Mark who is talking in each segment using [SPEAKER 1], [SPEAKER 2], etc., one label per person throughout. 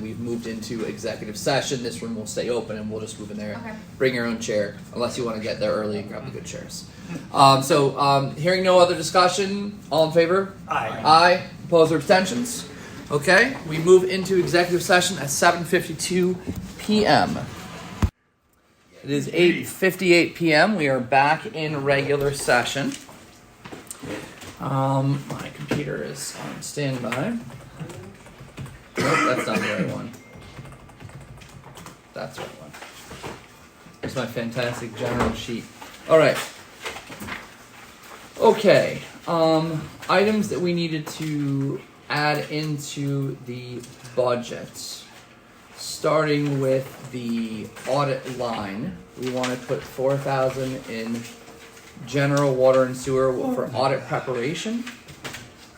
[SPEAKER 1] we've moved into executive session. This room will stay open and we'll just move in there.
[SPEAKER 2] Okay.
[SPEAKER 1] Bring your own chair, unless you want to get there early and grab the good chairs. Um, so, um, hearing no other discussion, all in favor?
[SPEAKER 3] Aye.
[SPEAKER 1] Aye. Opposed or abstentions? Okay, we move into executive session at 7:52 p.m. It is 8:58 p.m. We are back in regular session. Um, my computer is on standby. Nope, that's not the right one. That's the right one. It's my fantastic general sheet. All right. Okay. Um, items that we needed to add into the budget. Starting with the audit line, we want to put four thousand in general water and sewer for audit preparation.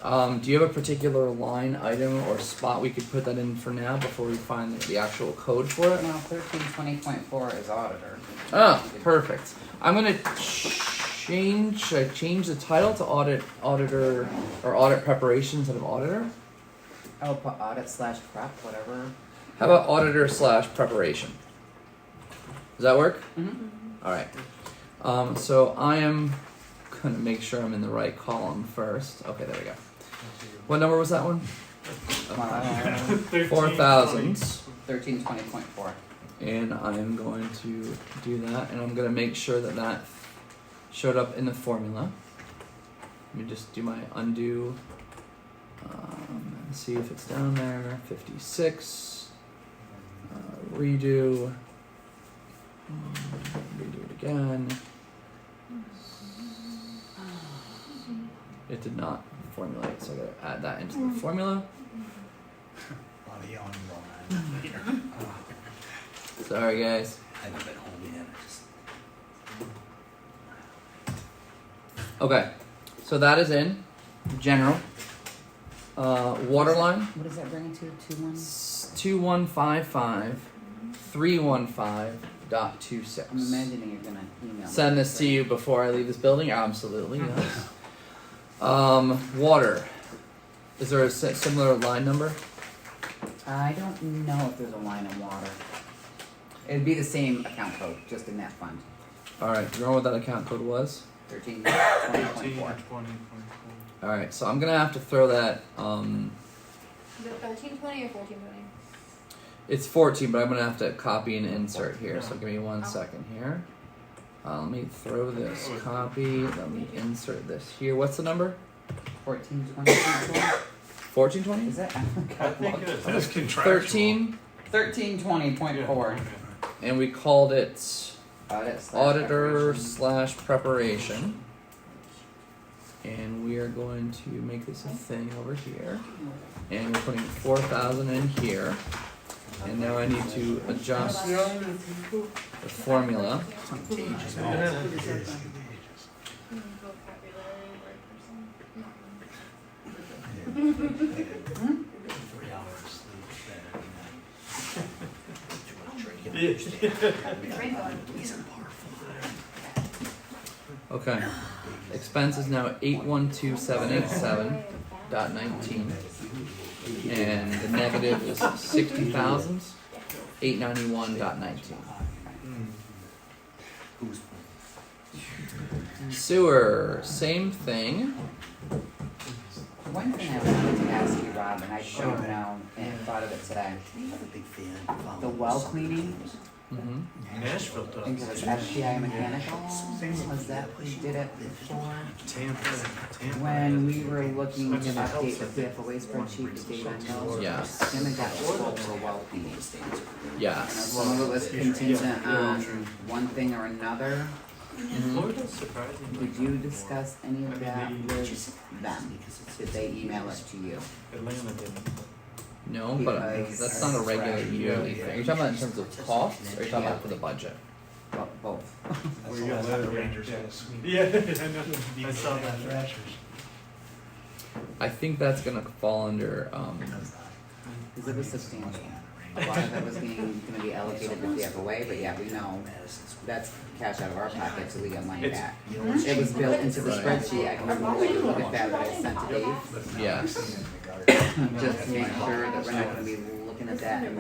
[SPEAKER 1] Um, do you have a particular line item or spot we could put that in for now before we find the actual code for it?
[SPEAKER 4] No, thirteen twenty point four is auditor.
[SPEAKER 1] Oh, perfect. I'm gonna change. Should I change the title to audit auditor or audit preparation instead of auditor?
[SPEAKER 4] I'll put audit slash prep, whatever.
[SPEAKER 1] How about auditor slash preparation? Does that work? Mm-hmm.
[SPEAKER 4] Mhm.
[SPEAKER 1] All right. Um, so I am gonna make sure I'm in the right column first. Okay, there we go. What number was that one? Four thousands.
[SPEAKER 4] Thirteen twenty point four.
[SPEAKER 1] and I'm going to do that, and I'm going to make sure that that showed up in the formula. Let me just do my undo um, and see if it's down there. 56. Uh, redo. Um, Redo it again. It did not formulate, so I gotta add that into the formula.
[SPEAKER 2] Mm-hmm.
[SPEAKER 3] Body on one. Here.
[SPEAKER 1] Sorry, guys.
[SPEAKER 3] I've been home in. I just-
[SPEAKER 1] Okay, so that is in general. Uh, water line
[SPEAKER 4] What does that bring to, two ones?
[SPEAKER 1] s- 2155 315 dot two six.
[SPEAKER 4] I'm imagining you're gonna email.
[SPEAKER 1] Send
[SPEAKER 4] me
[SPEAKER 1] this to you before I leave this building? Absolutely, yes. um, water. Is there a si- similar line number?
[SPEAKER 4] I don't know if there's a line in water. It'd be the same account code, just in that fund,
[SPEAKER 1] Alright, do you remember what that account code was?
[SPEAKER 4] thirteen twenty point four.
[SPEAKER 5] Thirteen
[SPEAKER 1] Alright, so I'm gonna have to throw that. Um,
[SPEAKER 2] Is it thirteen twenty or fourteen twenty?
[SPEAKER 1] it's 14, but I'm gonna have to copy and insert here, so give me one
[SPEAKER 2] Oh.
[SPEAKER 1] second here. Uh, let me throw this copy. Let me insert this here. What's the number?
[SPEAKER 4] Fourteen twenty point four,
[SPEAKER 1] Fourteen twenty?
[SPEAKER 4] is that?
[SPEAKER 5] I think it is.
[SPEAKER 3] That is contractual.
[SPEAKER 1] Thirteen,
[SPEAKER 4] Thirteen twenty point four.
[SPEAKER 1] and we called it
[SPEAKER 4] Audit slash
[SPEAKER 1] auditor
[SPEAKER 4] preparation.
[SPEAKER 1] slash preparation. And we are going to make this a thing over here, and we're putting four thousand in here. And now I need to adjust the formula.
[SPEAKER 2] Mm-hmm.
[SPEAKER 3] Three hours sleep Saturday night.
[SPEAKER 1] Okay. Expense is now eight one two seven eight seven dot nineteen. And the negative is sixty thousand eight ninety one dot nineteen.
[SPEAKER 3] Who's
[SPEAKER 1] Sewer, same thing.
[SPEAKER 4] One thing I wanted to ask you, Rob, and I should
[SPEAKER 3] Sure.
[SPEAKER 4] have known and thought of it today.
[SPEAKER 3] I'm a big fan.
[SPEAKER 4] The well cleaning,
[SPEAKER 1] Mm-hmm.
[SPEAKER 5] Nashville
[SPEAKER 4] I think it was
[SPEAKER 5] does.
[SPEAKER 4] FBI mechanical, was that who did it before?
[SPEAKER 5] Tampa, Tampa.
[SPEAKER 4] When we were looking to update the PFOA spreadsheet, the data on
[SPEAKER 1] Yeah.
[SPEAKER 4] those, then we got full for well cleaning. Now,
[SPEAKER 1] Yes.
[SPEAKER 4] Some of it was contingent on one thing or another.
[SPEAKER 2] Mm-hmm.
[SPEAKER 5] Florida's surprisingly.
[SPEAKER 4] Did you discuss any of that with them? Did they email it to you?
[SPEAKER 5] Atlanta didn't.
[SPEAKER 1] No, but uh, that's not a regular yearly thing. Are you talking about in terms of costs or are you talking about for the budget?
[SPEAKER 4] Bo- Both.
[SPEAKER 5] Where you live, yeah. Yeah, I know. I saw that.
[SPEAKER 1] I think that's gonna fall under um
[SPEAKER 4] Because it was substantial. A lot of that was being, gonna be allocated to PFOA, but yeah, we know, that's cash out of our pocket, so we get money
[SPEAKER 5] It's-
[SPEAKER 4] back.
[SPEAKER 3] You know,
[SPEAKER 4] It was built into the
[SPEAKER 1] Right.
[SPEAKER 4] spreadsheet, I can remember, look at that, that I sent to Dave,
[SPEAKER 1] yes.
[SPEAKER 4] just to make sure that we're not gonna be looking at that and